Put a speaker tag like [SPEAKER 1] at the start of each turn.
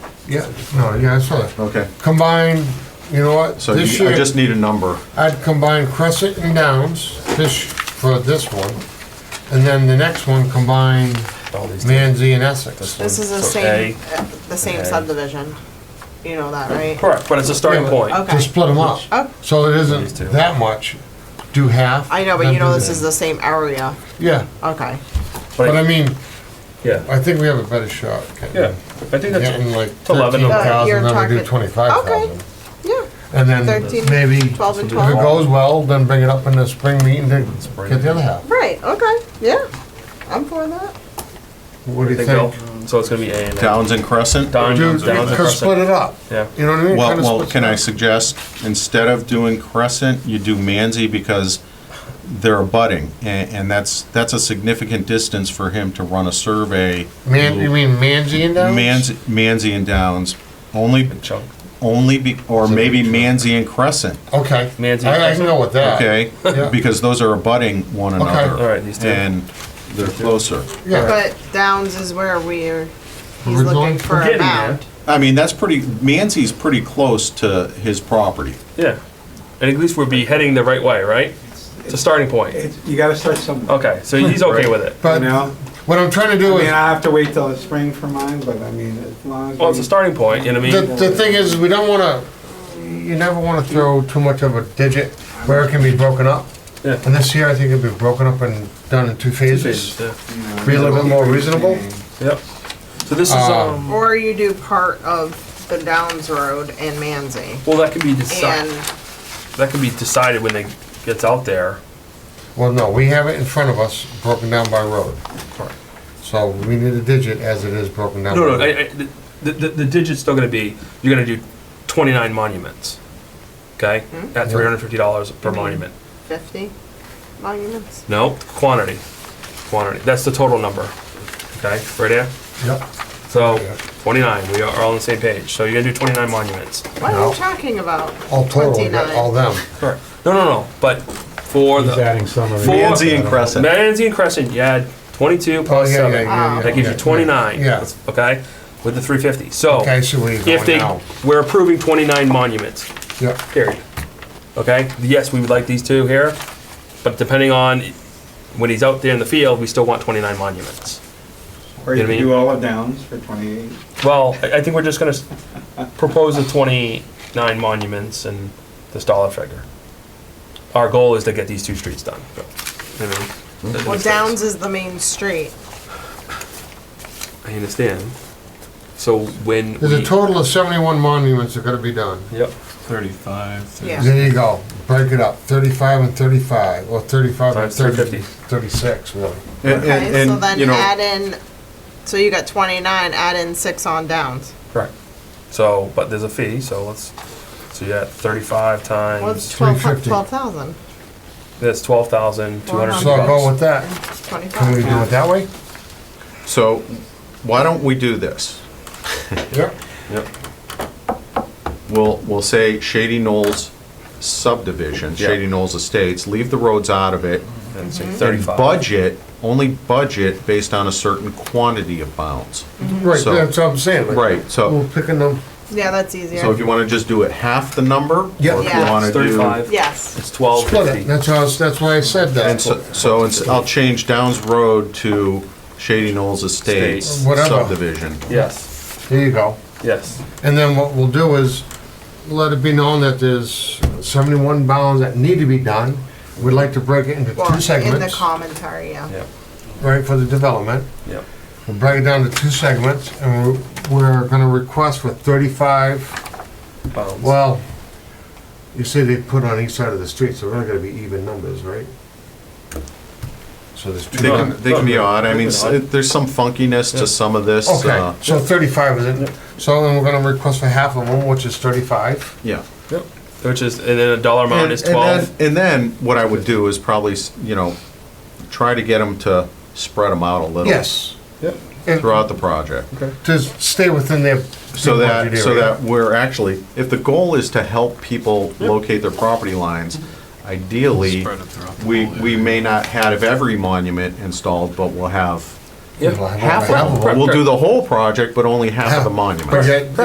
[SPEAKER 1] Yeah, no, yeah, I saw that.
[SPEAKER 2] Okay,
[SPEAKER 1] Combine, you know what,
[SPEAKER 2] so you-
[SPEAKER 1] this
[SPEAKER 2] I
[SPEAKER 1] year,
[SPEAKER 2] just need a number.
[SPEAKER 1] I'd combine Crescent and Downs, this, for this one, and then the next one combine
[SPEAKER 3] All these
[SPEAKER 1] Manzi and Essex.
[SPEAKER 3] one.
[SPEAKER 4] This is the
[SPEAKER 3] So
[SPEAKER 4] same, uh, the same
[SPEAKER 3] okay.
[SPEAKER 4] subdivision. You know that, right?
[SPEAKER 3] Correct, but it's a starting
[SPEAKER 1] Yeah, but-
[SPEAKER 3] point.
[SPEAKER 4] Okay.
[SPEAKER 1] To split them up,
[SPEAKER 4] Oh,
[SPEAKER 1] so it
[SPEAKER 3] These two.
[SPEAKER 1] isn't that much, do half.
[SPEAKER 4] I know, but
[SPEAKER 1] then
[SPEAKER 4] you know
[SPEAKER 1] do
[SPEAKER 4] this is the same area.
[SPEAKER 1] that. Yeah,
[SPEAKER 4] Okay.
[SPEAKER 1] but I mean,
[SPEAKER 3] Yeah,
[SPEAKER 1] I think we have a better shot. getting-
[SPEAKER 3] yeah, I
[SPEAKER 1] Getting
[SPEAKER 3] think that's,
[SPEAKER 1] like
[SPEAKER 3] to 11
[SPEAKER 1] thirteen thousand, then
[SPEAKER 3] of them.
[SPEAKER 1] we do
[SPEAKER 4] Uh, You're talking-
[SPEAKER 1] twenty-five
[SPEAKER 4] Okay.
[SPEAKER 1] thousand.
[SPEAKER 4] Yeah,
[SPEAKER 1] And then
[SPEAKER 4] 13,
[SPEAKER 1] maybe, if it
[SPEAKER 4] 12 and 12.
[SPEAKER 1] goes well, then bring it up in the spring meeting to
[SPEAKER 3] Spring.
[SPEAKER 1] get the other half.
[SPEAKER 4] Right, okay. Yeah. I'm for that.
[SPEAKER 1] What do you
[SPEAKER 3] They go.
[SPEAKER 1] think?
[SPEAKER 3] so it's gonna be A and A.
[SPEAKER 2] Downs and Crescent?
[SPEAKER 3] Downs
[SPEAKER 1] Do,
[SPEAKER 3] and
[SPEAKER 1] could split
[SPEAKER 3] Crescent.
[SPEAKER 1] it up,
[SPEAKER 3] Yeah,
[SPEAKER 1] you know what I mean?
[SPEAKER 2] Well,
[SPEAKER 1] Kinda
[SPEAKER 2] well,
[SPEAKER 1] splits
[SPEAKER 2] can
[SPEAKER 1] it
[SPEAKER 2] I
[SPEAKER 1] up.
[SPEAKER 2] suggest, instead of doing Crescent, you do Manzi because they're abutting, and, and that's, that's a significant distance for him to run a survey.
[SPEAKER 1] Man, you mean Manzi and Downs?
[SPEAKER 2] Manzi, Manzi and Downs, only,
[SPEAKER 3] big chunk.
[SPEAKER 2] only, be- or maybe Manzi and Crescent,
[SPEAKER 1] Okay.
[SPEAKER 3] Manzi and
[SPEAKER 1] I I can
[SPEAKER 3] Crescent.
[SPEAKER 1] go with that.
[SPEAKER 2] okay?
[SPEAKER 1] Yeah.
[SPEAKER 2] Because those are abutting one
[SPEAKER 1] Okay.
[SPEAKER 2] another.
[SPEAKER 3] All right, these two.
[SPEAKER 2] And they're closer.
[SPEAKER 1] Yeah,
[SPEAKER 4] But Downs is where we're, he's
[SPEAKER 1] We're going-
[SPEAKER 4] looking for
[SPEAKER 3] We're
[SPEAKER 4] a
[SPEAKER 3] getting there.
[SPEAKER 4] mound.
[SPEAKER 2] I mean, that's pretty, Manzi's pretty close to his property.
[SPEAKER 3] Yeah, and at least we'll be heading the right way, right? It's a starting point.
[SPEAKER 5] It's- You gotta start somewhere,
[SPEAKER 3] Okay, so he's okay with it.
[SPEAKER 5] you
[SPEAKER 1] but
[SPEAKER 5] know?
[SPEAKER 1] what I'm trying to
[SPEAKER 5] I
[SPEAKER 1] do
[SPEAKER 5] mean,
[SPEAKER 1] is,
[SPEAKER 5] I have to wait till the spring for mine, but I mean, as long as.
[SPEAKER 3] Well, it's a
[SPEAKER 5] we-
[SPEAKER 3] starting point, you know what I
[SPEAKER 1] the,
[SPEAKER 3] mean?
[SPEAKER 1] the thing is, we don't wanna, you never wanna throw too much of a digit where it can be broken up.
[SPEAKER 3] Yeah.
[SPEAKER 1] And this year, I think it'll be broken up and done in two
[SPEAKER 3] Phases,
[SPEAKER 1] phases.
[SPEAKER 3] yeah.
[SPEAKER 5] you know,
[SPEAKER 1] Be a little bit more reasonable.
[SPEAKER 3] Yep. So this is,
[SPEAKER 1] Uh,
[SPEAKER 3] um,
[SPEAKER 4] Or you do part of the Downs Road and Manzi.
[SPEAKER 3] well, that can be
[SPEAKER 4] And
[SPEAKER 3] decided, that can be decided when it gets out there.
[SPEAKER 1] Well, no, we have it in front of us, broken down by road.
[SPEAKER 3] Correct.
[SPEAKER 1] So we need a digit as it is broken down. by
[SPEAKER 3] No, no,
[SPEAKER 1] road.
[SPEAKER 3] I, I, the, the, the digit's still gonna be, you're gonna do twenty-nine monuments, okay? At three hundred and fifty dollars per monument.
[SPEAKER 4] fifty monuments.
[SPEAKER 3] No, quantity, quantity, that's the total number, okay, right there?
[SPEAKER 1] Yep.
[SPEAKER 3] So,
[SPEAKER 1] Yeah.
[SPEAKER 3] twenty-nine, we are all on the same page, so you're gonna do twenty-nine monuments.
[SPEAKER 4] What are
[SPEAKER 1] No.
[SPEAKER 4] you talking about?
[SPEAKER 1] All total, we got
[SPEAKER 4] 29.
[SPEAKER 1] all them.
[SPEAKER 3] Correct. No, no, no, but for
[SPEAKER 6] He's
[SPEAKER 3] the,
[SPEAKER 6] adding some of
[SPEAKER 3] Four.
[SPEAKER 6] it.
[SPEAKER 2] Manzi and Crescent.
[SPEAKER 3] Manatee and Crescent, you add twenty-two
[SPEAKER 1] Oh,
[SPEAKER 3] plus
[SPEAKER 1] yeah, yeah,
[SPEAKER 3] seven.
[SPEAKER 1] yeah, yeah,
[SPEAKER 4] That
[SPEAKER 3] That gives
[SPEAKER 1] yeah,
[SPEAKER 3] you 29.
[SPEAKER 1] Yeah.
[SPEAKER 3] Okay, with the 350. So
[SPEAKER 1] Okay, so we
[SPEAKER 3] if
[SPEAKER 1] going
[SPEAKER 3] they,
[SPEAKER 1] now.
[SPEAKER 3] we're approving 29 monuments,
[SPEAKER 1] Yep,
[SPEAKER 3] period. Okay, yes, we would like these two here, but depending on when he's out there in the field, we still want 29 monuments.
[SPEAKER 5] Or
[SPEAKER 3] You know what I mean?
[SPEAKER 5] you can do all the downs for twenty-eight.
[SPEAKER 3] Well, I I think we're just gonna s- propose the 29 monuments and this dollar figure. Our goal is to get these two streets done. so, you know, that
[SPEAKER 4] Well,
[SPEAKER 3] makes sense.
[SPEAKER 4] Downs is the main street.
[SPEAKER 3] I understand. So when
[SPEAKER 1] there's a
[SPEAKER 3] we-
[SPEAKER 1] total of seventy-one monuments that gotta be done.
[SPEAKER 3] Yep.
[SPEAKER 2] Thirty-five.
[SPEAKER 4] Yeah.
[SPEAKER 1] There you go, break it up, thirty-five and thirty-five, or thirty-five and
[SPEAKER 3] Times 350.
[SPEAKER 1] 30 thirty-six, really.
[SPEAKER 2] And, and-
[SPEAKER 4] Okay, so
[SPEAKER 2] and,
[SPEAKER 4] then
[SPEAKER 2] you know,
[SPEAKER 4] add in, so you got twenty-nine, add in six on Downs.
[SPEAKER 3] Correct. So, but there's a fee, so let's, so you got thirty-five
[SPEAKER 4] Well, it's
[SPEAKER 3] times,
[SPEAKER 4] twelve,
[SPEAKER 1] 350.
[SPEAKER 4] twelve thousand,
[SPEAKER 3] that's twelve thousand, two hundred and
[SPEAKER 1] So I'll go
[SPEAKER 3] fifty
[SPEAKER 1] with that, can we do it
[SPEAKER 4] twenty-five.
[SPEAKER 1] that way?
[SPEAKER 2] so why don't we do this?
[SPEAKER 1] Yep.
[SPEAKER 3] bucks.
[SPEAKER 2] We'll, we'll say Shady Knolls subdivision, Shady
[SPEAKER 3] Yeah.
[SPEAKER 2] Knolls Estates, leave the roads out of it.
[SPEAKER 3] And say
[SPEAKER 2] and
[SPEAKER 3] thirty-five.
[SPEAKER 2] Budget, only budget based on a certain quantity of bounds.
[SPEAKER 1] Right,
[SPEAKER 2] So-
[SPEAKER 1] that's what I'm saying. like,
[SPEAKER 2] Right, so,
[SPEAKER 1] We're picking them,
[SPEAKER 4] Yeah, that's easier.
[SPEAKER 2] so if you wanna just do it half the number?
[SPEAKER 1] Yeah.
[SPEAKER 2] or if you
[SPEAKER 4] Yeah.
[SPEAKER 2] wanna
[SPEAKER 3] It's
[SPEAKER 2] do-
[SPEAKER 3] thirty-five,
[SPEAKER 4] Yes,
[SPEAKER 3] it's twelve
[SPEAKER 1] split it,
[SPEAKER 3] fifty.
[SPEAKER 1] that's why, I was- that's why I said
[SPEAKER 2] And
[SPEAKER 1] that.
[SPEAKER 2] so, so it's- I'll change Downs Road to Shady Knolls Estates
[SPEAKER 3] Estates.
[SPEAKER 1] Whatever.
[SPEAKER 2] subdivision.
[SPEAKER 3] Yes,
[SPEAKER 1] There you go.
[SPEAKER 3] yes.
[SPEAKER 1] And then what we'll do is, let it be known that there's seventy-one bounds that need to be done. We'd like to break it into
[SPEAKER 4] well,
[SPEAKER 1] two
[SPEAKER 4] in the
[SPEAKER 1] segments,
[SPEAKER 4] commentary, yeah.
[SPEAKER 3] Yep,
[SPEAKER 1] right, for the development.
[SPEAKER 3] yep.
[SPEAKER 1] We'll break it down to two segments, and we're, we're gonna request for thirty-five,
[SPEAKER 3] Pounds.
[SPEAKER 1] well, you say they put on each side of the street, so we're not gonna be even numbers, right? So there's
[SPEAKER 2] They
[SPEAKER 1] two,
[SPEAKER 3] No.
[SPEAKER 2] can, they can be odd, I mean, s- there's some funkiness to some of this, uh,
[SPEAKER 1] okay, so thirty-five is it, so then we're gonna request for half of them, which is thirty-five.
[SPEAKER 2] yeah.
[SPEAKER 3] Yep. Which is, and then a dollar amount
[SPEAKER 2] And,
[SPEAKER 3] is
[SPEAKER 2] and
[SPEAKER 3] twelve.
[SPEAKER 2] then, and then what I would do is probably, s- you know, try to get them to spread them out a little
[SPEAKER 1] Yes,
[SPEAKER 3] Yep.
[SPEAKER 1] and
[SPEAKER 2] throughout the project.
[SPEAKER 1] to stay within their.
[SPEAKER 2] So that,
[SPEAKER 1] budget
[SPEAKER 2] so
[SPEAKER 1] area.
[SPEAKER 2] that we're actually, if the goal is to help people locate their property lines, ideally, we, we may not have every monument installed, but we'll have
[SPEAKER 3] Yep.
[SPEAKER 1] Well, I won't
[SPEAKER 2] half
[SPEAKER 1] have
[SPEAKER 2] of
[SPEAKER 1] them.
[SPEAKER 2] them. We'll do the whole project, but only half of the
[SPEAKER 1] But
[SPEAKER 2] monuments.
[SPEAKER 1] yet,